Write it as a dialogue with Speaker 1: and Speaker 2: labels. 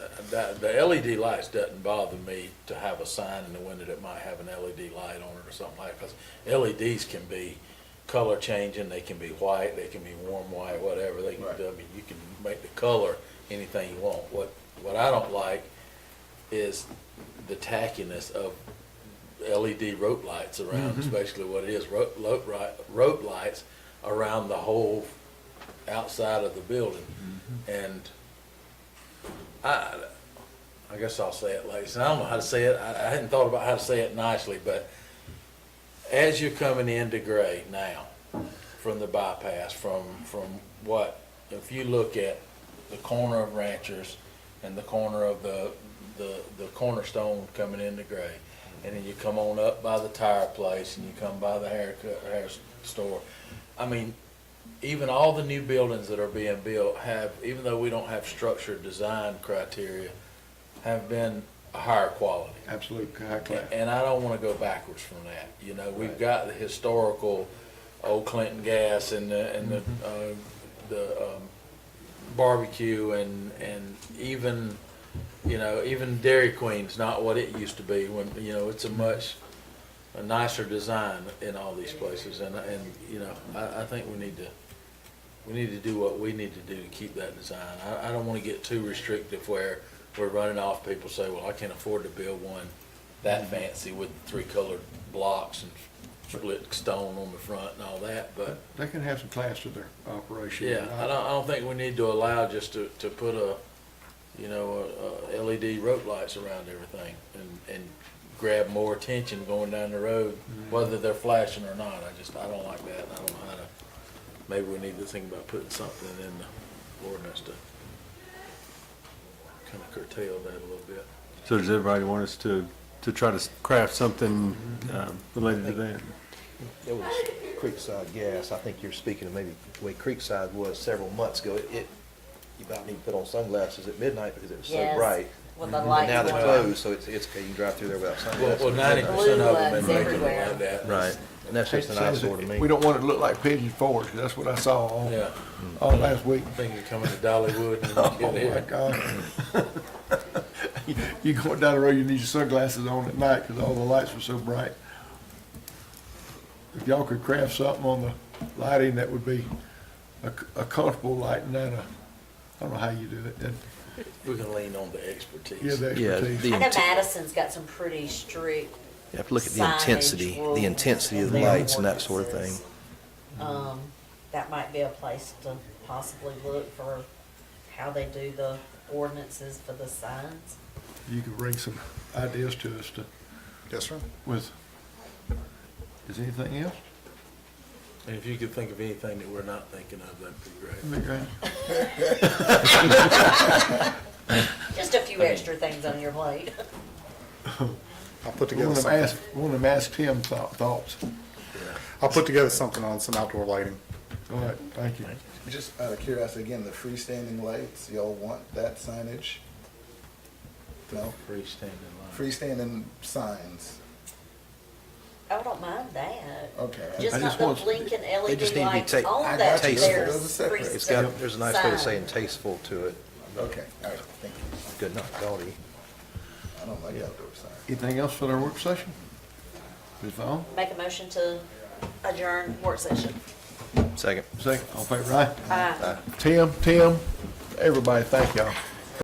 Speaker 1: the, the LED lights doesn't bother me to have a sign in the window that might have an LED light on it or something like, because LEDs E can be color changing, they can be white, they can be warm white, whatever, they can, I
Speaker 2: Right.
Speaker 1: mean, you can make the color anything you want. What, what I don't like is the tackiness of LED rope lights around, is basically what it is, rope, rope, ri- rope lights around the whole outside of the building. And I, I guess I'll say it, ladies, and I don't know how to say it, I, I hadn't thought about how to say it nicely, but as you're coming into Gray now, from the bypass, from, from what, if you look at the corner of Ranchers and the corner of the, the, the cornerstone coming into Gray, and then you come on up by the tire place and you come by the haircut, hair store. I mean, even all the new buildings that are being built have, even though we don't have structured design criteria, have been a higher quality.
Speaker 2: Absolute high class.
Speaker 1: And I don't want to go backwards from that. You know, we've
Speaker 2: Right.
Speaker 1: got the historical old Clinton gas and the, and the, uh, the um, barbecue and, and even, you know, even Dairy Queen's not what it used to be when, you know, it's a much a nicer design in all these places. And, and, you know, I, I think we need to, we need to do what we need to do to keep that design. I, I don't want to get too restrictive where we're running off people say, well, I can't afford to build one that fancy with three colored blocks and split stone on the front and all that, but,
Speaker 2: They can have some class to their operation.
Speaker 1: yeah, I don't, I don't think we need to allow just to, to put a, you know, a, a LED rope lights around everything and, and grab more attention going down the road, whether they're flashing or not, I just, I don't like that, and I don't know how to, maybe we need to think about putting something in the ordinance to kind of curtail that a little bit.
Speaker 3: So does everybody want us to, to try to craft something um, related to that?
Speaker 4: It was Creekside Gas, I think you're speaking of maybe the way Creekside was several months ago. It- It, you about need to put on sunglasses at midnight because it was so
Speaker 5: Yes,
Speaker 4: bright.
Speaker 5: With the
Speaker 4: And
Speaker 5: lights
Speaker 4: now
Speaker 5: on.
Speaker 4: they're closed, so it's, it's, you can drive through there without
Speaker 1: Well,
Speaker 4: sunglasses.
Speaker 1: well, ninety percent of them in Macon are like that.
Speaker 4: Right, and that's just an eyesore to me.
Speaker 2: We don't want it to look like Pigeon Forge, 'cause that's what I saw all,
Speaker 1: Yeah,
Speaker 2: all last week.
Speaker 1: I think you're coming to Dollywood and
Speaker 2: Oh,
Speaker 1: you get
Speaker 2: my
Speaker 1: there.
Speaker 2: God. You going down the road, you need your sunglasses on at night, because all the lights were so bright. If y'all could craft something on the lighting, that would be a, a comfortable light, and not a, I don't know how you do it, and
Speaker 1: We can lean on the expertise.
Speaker 2: give the
Speaker 4: Yeah,
Speaker 5: I
Speaker 4: the-
Speaker 2: expertise.
Speaker 5: know Madison's got some pretty strict
Speaker 4: You have to look at the
Speaker 5: signage
Speaker 4: intensity,
Speaker 5: rules
Speaker 4: the intensity of the
Speaker 5: and their
Speaker 4: lights and that sort of thing.
Speaker 5: ordinances. Um, that might be a place to possibly look for how they do the ordinances for the signs.
Speaker 2: You could bring some ideas to us to,
Speaker 6: Yes, sir.
Speaker 2: with, is anything else?
Speaker 1: And if you could think of anything that we're not thinking of, that'd be great.
Speaker 5: Just a few extra things on your plate.
Speaker 6: I'll put together
Speaker 2: Want to ask,
Speaker 6: something.
Speaker 2: want to ask Tim thou- thoughts.
Speaker 6: I'll put together something on some outdoor lighting.
Speaker 2: All right, thank you.
Speaker 7: Just out of curiosity, again, the freestanding lights, y'all want that signage? No,
Speaker 1: Freestanding
Speaker 7: freestanding signs,
Speaker 5: I don't mind that.
Speaker 7: okay.
Speaker 2: I
Speaker 5: Just
Speaker 2: just
Speaker 5: not the
Speaker 2: want-
Speaker 5: blinking
Speaker 4: they just need
Speaker 5: LED
Speaker 4: to be
Speaker 5: lights
Speaker 4: ta-
Speaker 5: on
Speaker 7: I
Speaker 5: that.
Speaker 7: got you.
Speaker 5: There's
Speaker 7: Those are separate.
Speaker 4: It's got,
Speaker 5: freestanding
Speaker 4: there's a nice way of
Speaker 5: signs.
Speaker 4: saying tasteful to it,
Speaker 7: Okay, all right, thank you.
Speaker 4: good, not gaudy.
Speaker 7: I don't like outdoor signs.
Speaker 2: Anything else for our work session? Ms. Vaughn,
Speaker 5: Make a motion to adjourn work session.
Speaker 4: Second.
Speaker 2: second, all in favor aye.
Speaker 5: Aye.
Speaker 2: Tim, Tim, everybody, thank y'all.